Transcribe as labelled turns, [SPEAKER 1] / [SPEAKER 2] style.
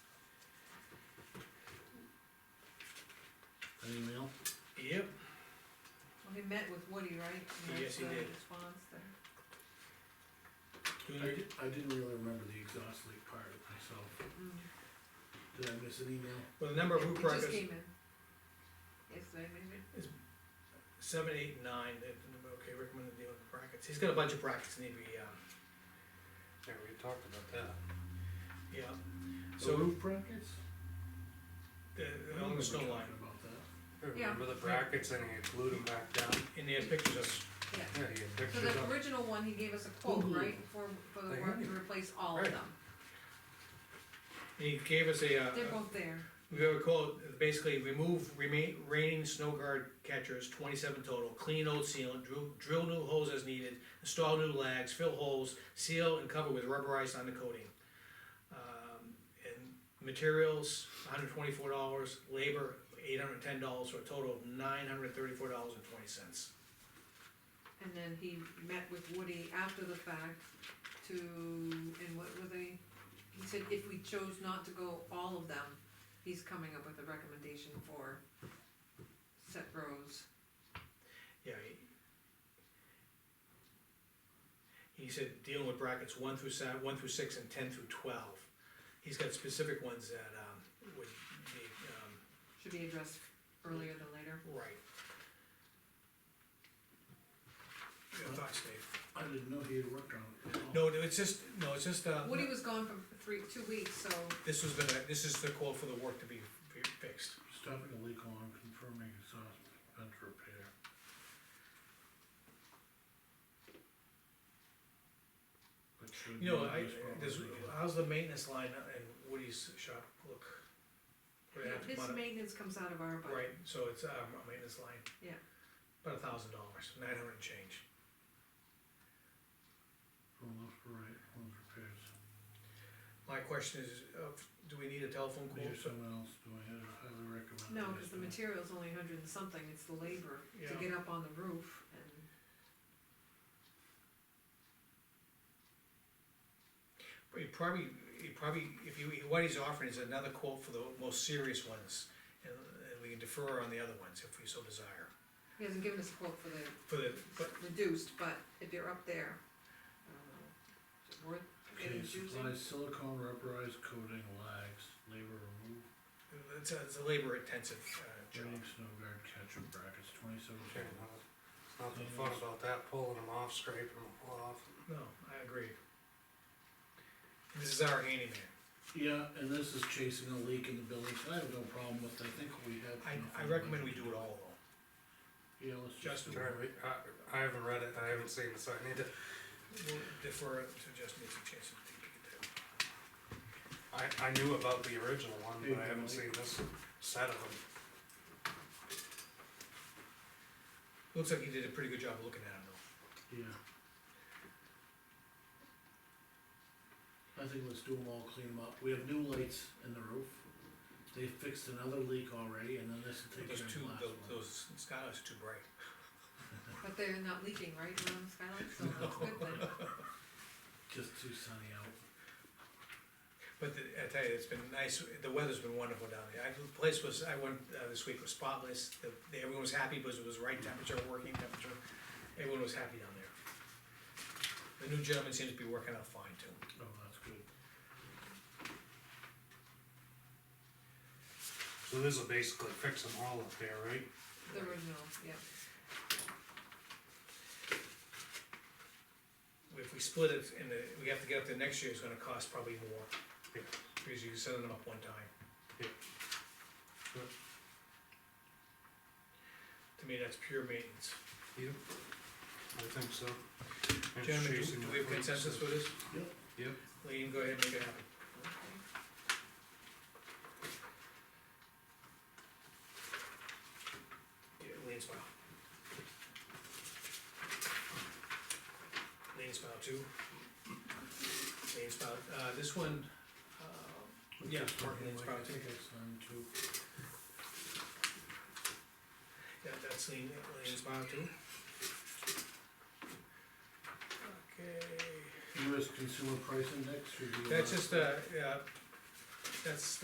[SPEAKER 1] Woody, right?
[SPEAKER 2] Yes, he
[SPEAKER 1] That's the
[SPEAKER 2] did.
[SPEAKER 1] Response there.
[SPEAKER 3] I
[SPEAKER 2] Do you-
[SPEAKER 3] did, I didn't really remember the exhaust leak part of myself,
[SPEAKER 1] Mm.
[SPEAKER 3] did I miss an email?
[SPEAKER 2] Well, the number of
[SPEAKER 1] It
[SPEAKER 2] roof
[SPEAKER 1] just
[SPEAKER 2] records,
[SPEAKER 1] came in. Yesterday, maybe?
[SPEAKER 2] seven, eight, nine, that the number, okay, recommended deal with brackets, he's got a bunch of brackets that need to be, um,
[SPEAKER 4] Yeah, we talked about that.
[SPEAKER 2] yeah.
[SPEAKER 3] The
[SPEAKER 2] So,
[SPEAKER 3] roof brackets?
[SPEAKER 2] the,
[SPEAKER 3] I
[SPEAKER 2] on
[SPEAKER 3] remember
[SPEAKER 2] the snow
[SPEAKER 3] talking
[SPEAKER 2] line,
[SPEAKER 3] About that,
[SPEAKER 1] Yeah.
[SPEAKER 4] Remember the brackets and he glued them back down?
[SPEAKER 2] and they had pictures of,
[SPEAKER 1] Yeah.
[SPEAKER 4] Yeah, he had
[SPEAKER 1] So
[SPEAKER 4] pictures
[SPEAKER 1] the
[SPEAKER 4] of.
[SPEAKER 1] original one, he gave us a quote,
[SPEAKER 3] Mhm.
[SPEAKER 1] right, for, for the
[SPEAKER 4] They
[SPEAKER 1] work
[SPEAKER 4] had
[SPEAKER 1] to
[SPEAKER 4] it.
[SPEAKER 1] replace all of
[SPEAKER 4] Right.
[SPEAKER 1] them.
[SPEAKER 2] he gave us a, uh,
[SPEAKER 1] They're both there.
[SPEAKER 2] we have a quote, basically, remove remain, raining snow guard catchers, twenty-seven total, clean old sealant, drill, drill new holes as needed, install new lags, fill holes, seal and cover with rubberized undercoating. Um, and materials, hundred twenty-four dollars, labor, eight hundred ten dollars, for a total of nine hundred thirty-four dollars and twenty cents.
[SPEAKER 1] And then he met with Woody after the fact to, and what were they? He said if we chose not to go all of them, he's coming up with a recommendation for set rows.
[SPEAKER 2] Yeah. He he said dealing with brackets one through seven, one through six and ten through twelve. He's got specific ones that, um, would be,
[SPEAKER 1] Should be addressed earlier than later.
[SPEAKER 2] um, right. Your thoughts, Dave?
[SPEAKER 3] I didn't know he had worked on it at all.
[SPEAKER 2] No, no, it's just, no, it's just, uh,
[SPEAKER 1] Woody was gone for three, two weeks, so
[SPEAKER 2] this was gonna, this is the call for the work to be be fixed.
[SPEAKER 3] Stopping a leak alarm, confirming exhaust vent repair. That should
[SPEAKER 2] You know,
[SPEAKER 3] be
[SPEAKER 2] I,
[SPEAKER 3] this problem
[SPEAKER 2] there's,
[SPEAKER 3] again.
[SPEAKER 2] how's the maintenance line in Woody's shop look? We're gonna have to
[SPEAKER 1] his
[SPEAKER 2] come out of-
[SPEAKER 1] maintenance comes out of our budget.
[SPEAKER 2] Right, so it's, um, a maintenance line.
[SPEAKER 1] Yeah.
[SPEAKER 2] About a thousand dollars, nine hundred and change.
[SPEAKER 3] Well, those were right, those repairs.
[SPEAKER 2] My question is, uh, do we need a telephone
[SPEAKER 3] Maybe
[SPEAKER 2] quote?
[SPEAKER 3] someone else doing it, I highly recommend.
[SPEAKER 1] No,
[SPEAKER 3] that he's
[SPEAKER 1] cause the
[SPEAKER 3] doing it.
[SPEAKER 1] material's only a hundred and something, it's the labor to
[SPEAKER 2] Yeah.
[SPEAKER 1] get up on the roof and.
[SPEAKER 2] He probably, he probably, if you, what he's offering is another quote for the most serious ones, and, and we can defer on the other ones if we so desire.
[SPEAKER 1] He hasn't given us a quote for the
[SPEAKER 2] For the, but,
[SPEAKER 1] reduced, but if you're up there, I don't know, is it worth
[SPEAKER 3] Okay,
[SPEAKER 1] getting choosing?
[SPEAKER 3] supplies silicone rubberized coating lags, labor remove,
[SPEAKER 2] it's a, it's a labor intensive, uh, job.
[SPEAKER 3] training snow guard catcher brackets, twenty-seven.
[SPEAKER 4] Okay, well, It's not
[SPEAKER 2] Mm-hmm.
[SPEAKER 4] the fun about that, pulling them off, scraping them off.
[SPEAKER 2] No, I agree. This is our handyman.
[SPEAKER 3] Yeah, and this is chasing a leak in the building, so I have no problem with, it. I think we have. enough
[SPEAKER 2] I, I
[SPEAKER 3] on the
[SPEAKER 2] recommend we
[SPEAKER 3] budget.
[SPEAKER 2] do it all though.
[SPEAKER 3] Yeah, let's just. do
[SPEAKER 2] Justin.
[SPEAKER 3] it.
[SPEAKER 4] Try to re- I, I haven't read it, I haven't seen it, so I need to,
[SPEAKER 2] We'll defer it to just make a chance to think we can
[SPEAKER 4] I, I knew about the original one, but I haven't
[SPEAKER 3] Hey,
[SPEAKER 4] seen this set of them.
[SPEAKER 2] do. Looks like you did a pretty good job looking at him though.
[SPEAKER 3] Yeah. I think let's do them all, clean them up, we have new lights in the roof, they fixed another leak already, and then this will take
[SPEAKER 2] Those
[SPEAKER 3] care of
[SPEAKER 2] two,
[SPEAKER 3] the last
[SPEAKER 2] those,
[SPEAKER 3] one.
[SPEAKER 2] those skylights are too bright.
[SPEAKER 1] But they're not leaking, right, around the skylight, so that's a good thing.
[SPEAKER 3] Just too sunny out.
[SPEAKER 2] But the- I tell you, it's been nice, the weather's been wonderful down there. I, the place was, I went, uh, this week was spotless, the, the- everyone was happy because it was right temperature, working temperature. Everyone was happy down there. The new gentleman seems to be working out fine too.
[SPEAKER 3] Oh, that's good.
[SPEAKER 4] So this will basically fix them all up there, right?
[SPEAKER 1] The original, yeah,
[SPEAKER 2] If we split it and the, we have to get up there next year, it's gonna cost probably more.
[SPEAKER 4] Yeah.
[SPEAKER 2] Because you send them up one time.
[SPEAKER 4] Yeah. Sure.
[SPEAKER 2] To me, that's pure maintenance.
[SPEAKER 4] Yep. I think so. And
[SPEAKER 2] Gentlemen, do-
[SPEAKER 4] chasing
[SPEAKER 2] do
[SPEAKER 4] the
[SPEAKER 2] we have
[SPEAKER 4] leaks.
[SPEAKER 2] consensus for this?
[SPEAKER 3] Yep.
[SPEAKER 4] Yep.
[SPEAKER 2] Lean, go ahead and make it happen.
[SPEAKER 1] okay.
[SPEAKER 2] Yeah, lean smile. Lean smile two. Lean smile, uh, this one, uh,
[SPEAKER 3] Let's
[SPEAKER 2] Yeah,
[SPEAKER 3] just do
[SPEAKER 2] parking
[SPEAKER 3] them
[SPEAKER 2] lot's
[SPEAKER 3] like- I
[SPEAKER 2] probably-
[SPEAKER 3] think that's done too.
[SPEAKER 2] yeah, that's lean, lean smile two. Okay,
[SPEAKER 3] US Consumer Price Index should be.
[SPEAKER 2] that's
[SPEAKER 3] allowed.
[SPEAKER 2] just, uh, yeah, uh, that's,